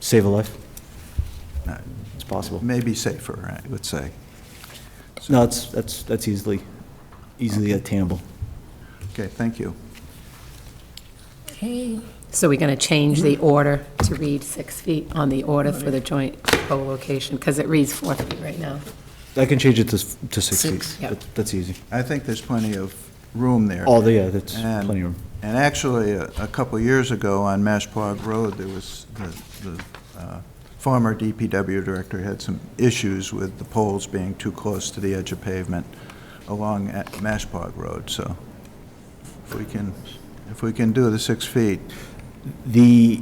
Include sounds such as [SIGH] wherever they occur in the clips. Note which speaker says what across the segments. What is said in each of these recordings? Speaker 1: save a life. It's possible.
Speaker 2: Maybe safer, I would say.
Speaker 1: No, it's, that's, that's easily, easily attainable.
Speaker 2: Okay, thank you.
Speaker 3: Okay, so we're going to change the order to read six feet on the order for the joint co-location, because it reads four feet right now.
Speaker 1: I can change it to, s- to six feet.
Speaker 3: Six, yeah.
Speaker 1: That- That's easy.
Speaker 2: I think there's plenty of room there.
Speaker 1: Oh, yeah, that's
Speaker 2: And-
Speaker 1: plenty of room.
Speaker 2: And actually, a a couple of years ago on Mashpog Road, there was, the- the uh, former DPW director had some issues with the poles being too close to the edge of pavement along at Mashpog Road, so if we can, if we can do the six feet,
Speaker 1: The,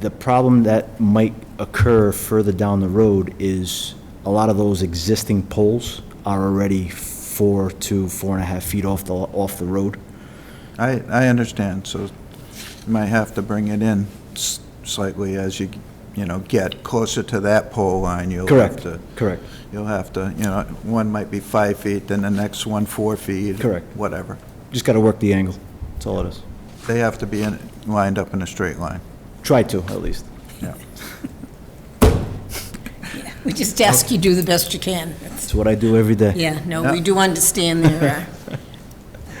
Speaker 1: the problem that might occur further down the road is a lot of those existing poles are already four to four and a half feet off the, off the road.
Speaker 2: I, I understand, so you might have to bring it in s- slightly as you, you know, get closer to that pole line, you'll have
Speaker 1: Correct,
Speaker 2: to...
Speaker 1: correct.
Speaker 2: You'll have to, you know, one might be five feet, then the next one four feet.
Speaker 1: Correct.
Speaker 2: Whatever.
Speaker 1: Just got to work the angle. That's all it is.
Speaker 2: They have to be in- lined up in a straight line.
Speaker 1: Try to, at least.
Speaker 2: Yeah.
Speaker 4: We just ask you do the best you can.
Speaker 1: It's what I do every day.
Speaker 4: Yeah, no, we do understand there [LAUGHS] are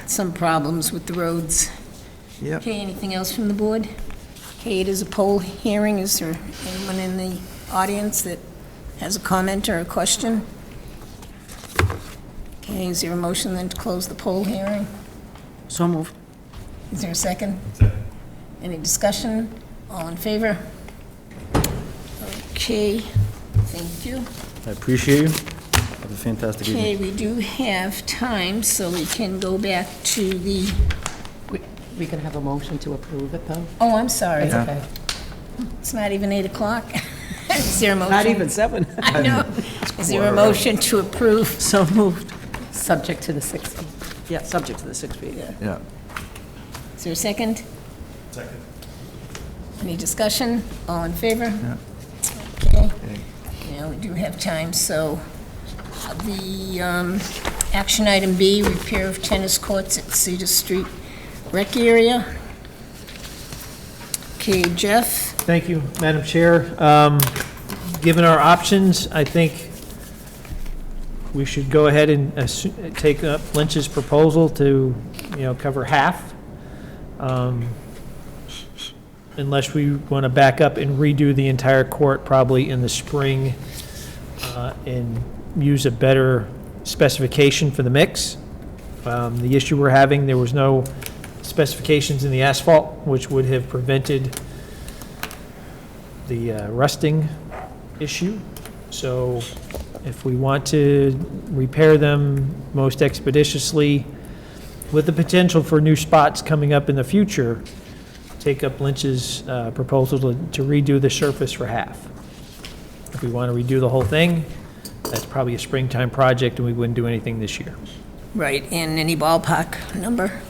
Speaker 4: some problems with the roads.
Speaker 2: Yep.
Speaker 4: Okay, anything else from the board? Okay, it is a poll hearing. Is there anyone in the audience that has a comment or a question? Okay, is there a motion then to close the poll hearing?
Speaker 3: So moved.
Speaker 4: Is there a second? Second. Any discussion? All in favor? Okay, thank you.
Speaker 1: I appreciate you. Have a fantastic evening.
Speaker 4: Okay, we do have time, so we can go back to the,
Speaker 3: We can have a motion to approve it, though?
Speaker 4: oh, I'm sorry,
Speaker 3: It's okay.
Speaker 4: it's not even 8 o'clock. [LAUGHS] Is there a motion?
Speaker 3: Not even seven.
Speaker 4: I know. Is there a motion to approve?
Speaker 3: So moved.
Speaker 4: Subject to the 6th.
Speaker 3: Yeah, subject to the six feet.
Speaker 2: Yeah.
Speaker 4: Is there a second? Second. Any discussion? All in favor? Okay. Now, we do have time, so uh, the um, action item B, repair of tennis courts at Cedar Street Rec Area. Okay, Jeff?
Speaker 5: Thank you, Madam Chair. Um, Given our options, I think we should go ahead and assu- take up Lynch's proposal to, you know, cover half. Um, Unless we want to back up and redo the entire court probably in the spring uh, and use a better specification for the mix. Um, The issue we're having, there was no specifications in the asphalt, which would have prevented the uh, rusting issue. So if we want to repair them most expeditiously, with the potential for new spots coming up in the future, take up Lynch's uh, proposal to to redo the surface for half. If we want to redo the whole thing, that's probably a springtime project, and we wouldn't do anything this year.
Speaker 4: Right, and any ballpark number?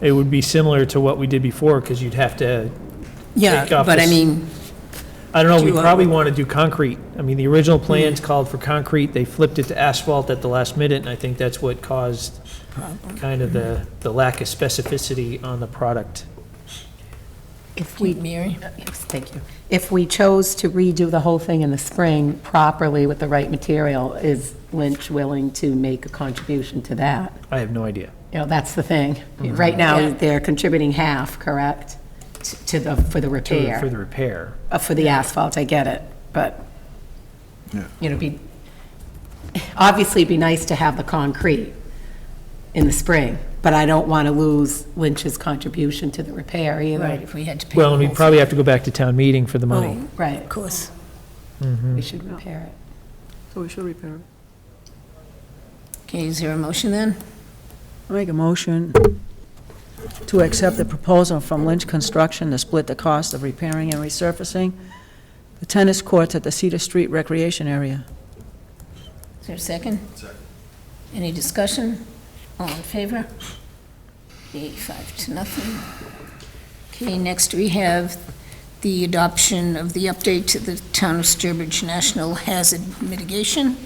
Speaker 5: It would be similar to what we did before, because you'd have to Take
Speaker 4: Yeah,
Speaker 5: off
Speaker 4: but I
Speaker 5: this-
Speaker 4: mean,
Speaker 5: I don't know, we
Speaker 4: Do, uh,
Speaker 5: probably want to do concrete. I mean, the original plans called for concrete, they flipped it to asphalt at the last minute, and I think that's what caused kind of the, the lack of specificity on the product.
Speaker 3: If we,
Speaker 4: we, Mary?
Speaker 3: yes, thank you. If we chose to redo the whole thing in the spring properly with the right material, is Lynch willing to make a contribution to that?
Speaker 5: I have no idea.
Speaker 3: You know, that's the thing. Right now,
Speaker 4: Yeah.
Speaker 3: they're contributing half, correct, T- to the, for the
Speaker 5: To-
Speaker 3: repair?
Speaker 5: For the repair.
Speaker 3: Uh, for the asphalt, I get it, but,
Speaker 2: Yeah.
Speaker 3: you know, be, obviously, it'd be nice to have the concrete in the spring, but I don't want to lose Lynch's contribution to the repair
Speaker 4: Right,
Speaker 3: either.
Speaker 4: if we had to pay.
Speaker 5: Well, and
Speaker 4: the
Speaker 5: we
Speaker 4: whole
Speaker 5: probably have to go back to town meeting for the
Speaker 4: thing.
Speaker 5: money.
Speaker 4: Oh,
Speaker 3: Right,
Speaker 4: Of course.
Speaker 3: we should repair it.
Speaker 6: So we should repair it.
Speaker 4: Okay, is there a motion then?
Speaker 6: I make a motion to accept the proposal from Lynch Construction to split the cost of repairing and resurfacing the tennis courts at the Cedar Street Recreation Area.
Speaker 4: Is there a second? Second. Any discussion? All in favor? Okay, five to nothing. Okay, next we have the adoption of the update to the Town of Sturbridge National Hazard Mitigation.